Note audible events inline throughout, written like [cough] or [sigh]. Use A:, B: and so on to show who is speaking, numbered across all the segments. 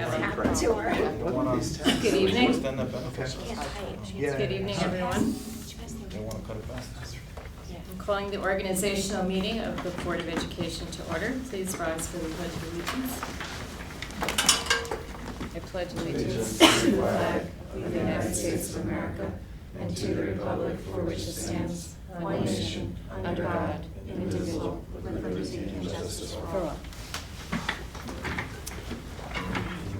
A: to her.
B: Look at these tabs.
C: Good evening.
B: Where's then the benefits? Yeah.
C: Good evening, everyone.
B: They wanna cut it back.
C: I'm calling the organizational meeting of the Board of Education to order. Please rise for the pledge of allegiance. I pledge allegiance to the flag of the United States of America and to the republic for which it stands, one nation, under God, indivisible, with liberty and justice for all.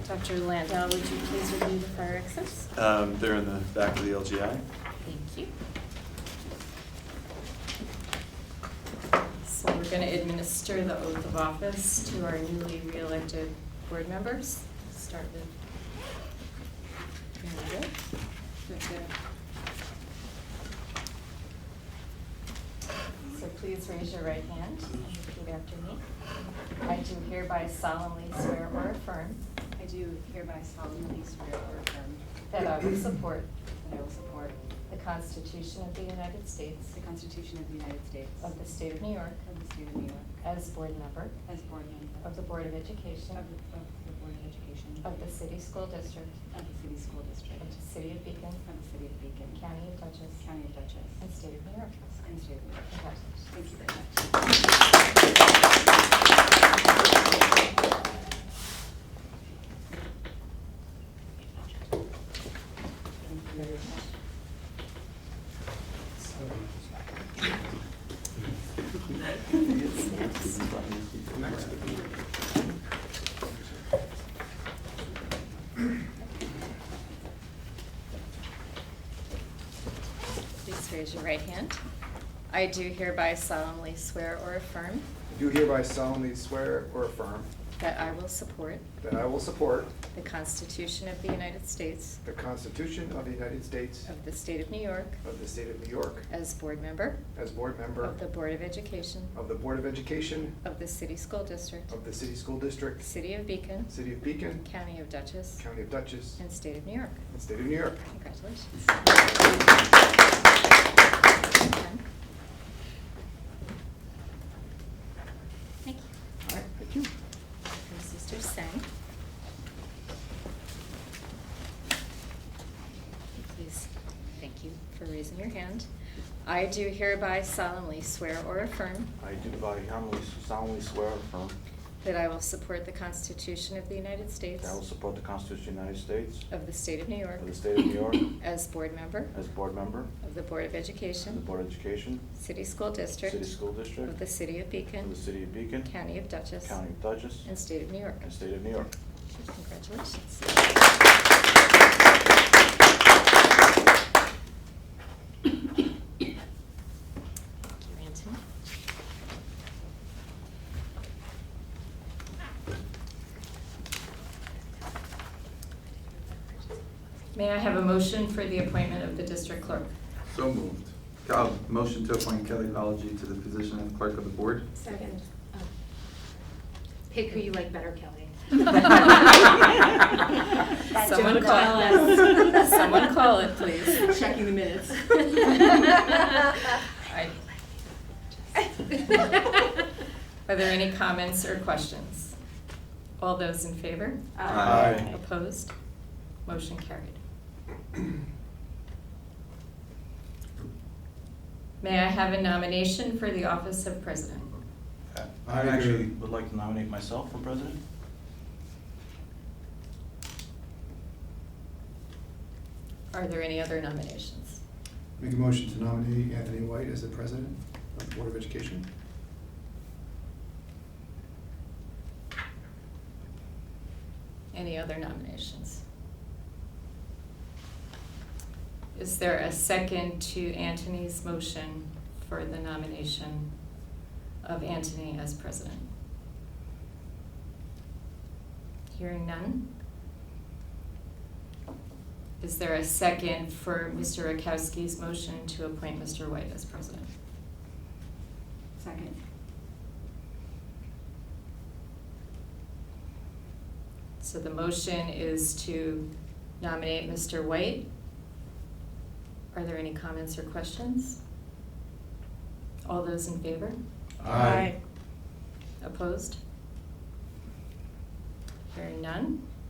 C: Dr. Landau, would you please review the fire exits?
D: Um, They're in the back of the LGI.
C: Thank you. So we're going to administer the oath of office to our newly re-elected board members. Start with. Mary Jo. Very good. So please raise your right hand and repeat after me. I do hereby solemnly swear or affirm
E: I do hereby solemnly swear or affirm
C: that I will support
E: that I will support
C: the Constitution of the United States
E: the Constitution of the United States
C: of the State of New York
E: of the State of New York
C: as board member
E: as board member
C: of the Board of Education
E: of the- of the Board of Education
C: of the City School District
E: of the City School District
C: of the City of Beacon,
E: of the City of Beacon
C: County of Dutchess,
E: County of Dutchess
C: and State of New York.
E: and State of New York.
C: Congratulations.
E: Thank you very much.
C: Please raise your right hand. I do hereby solemnly swear or affirm
B: Do hereby solemnly swear or affirm
C: that I will support
B: that I will support
C: the Constitution of the United States
B: the Constitution of the United States
C: of the State of New York
B: of the State of New York
C: as board member
B: as board member
C: of the Board of Education
B: of the Board of Education
C: of the City School District,
B: of the City School District,
C: City of Beacon,
B: City of Beacon,
C: County of Dutchess,
B: County of Dutchess,
C: and State of New York.
B: and State of New York.
C: Congratulations. Thank you.
B: All right, thank you.
C: From Sister Sang. Please, thank you for raising your hand. I do hereby solemnly swear or affirm
F: I do by humbly solemnly swear and affirm
C: that I will support the Constitution of the United States
F: that I will support the Constitution of the United States
C: of the State of New York
F: of the State of
C: [coughs]
F: New York
C: as board member
F: as board member
C: of the Board of
F: of the
C: Education,
F: Board of Education,
C: City School District
F: City School District
C: of the City of
F: of
C: Beacon,
F: the City of Beacon,
C: County of Dutchess,
F: County of Dutchess,
C: and State of New York.
F: and State of New York.
C: Congratulations. [coughs] Thank you, Anthony. May I have a motion for the appointment of the district clerk?
G: So moved. Uh, Motion to appoint Kelly Collegy to the position of clerk of the board.
A: Second. Pick who you like better,
C: [laughs]
A: Kelly. [laughs]
C: That Someone don't call call it. us. Someone call it, please.
A: Checking the minutes.
C: I- Are there any comments or questions? All those in favor?
G: Aye.
C: Opposed? Motion carried. May I have a nomination for the office of president?
F: Uh,
G: I
F: I
G: agree.
F: actually would like to nominate myself for president.
C: Are there any other nominations?
B: Make a motion to nominate Anthony White as the president of the Board of Education.
C: Any other nominations? Is there a second to Anthony's motion for the nomination of Anthony as president? Hearing none? Is there a second for Mr. Rakowski's motion to appoint Mr. White as president?
E: Second.
C: So the motion is to nominate Mr. White. Are there any comments or questions? All those in favor? Opposed? Hearing none?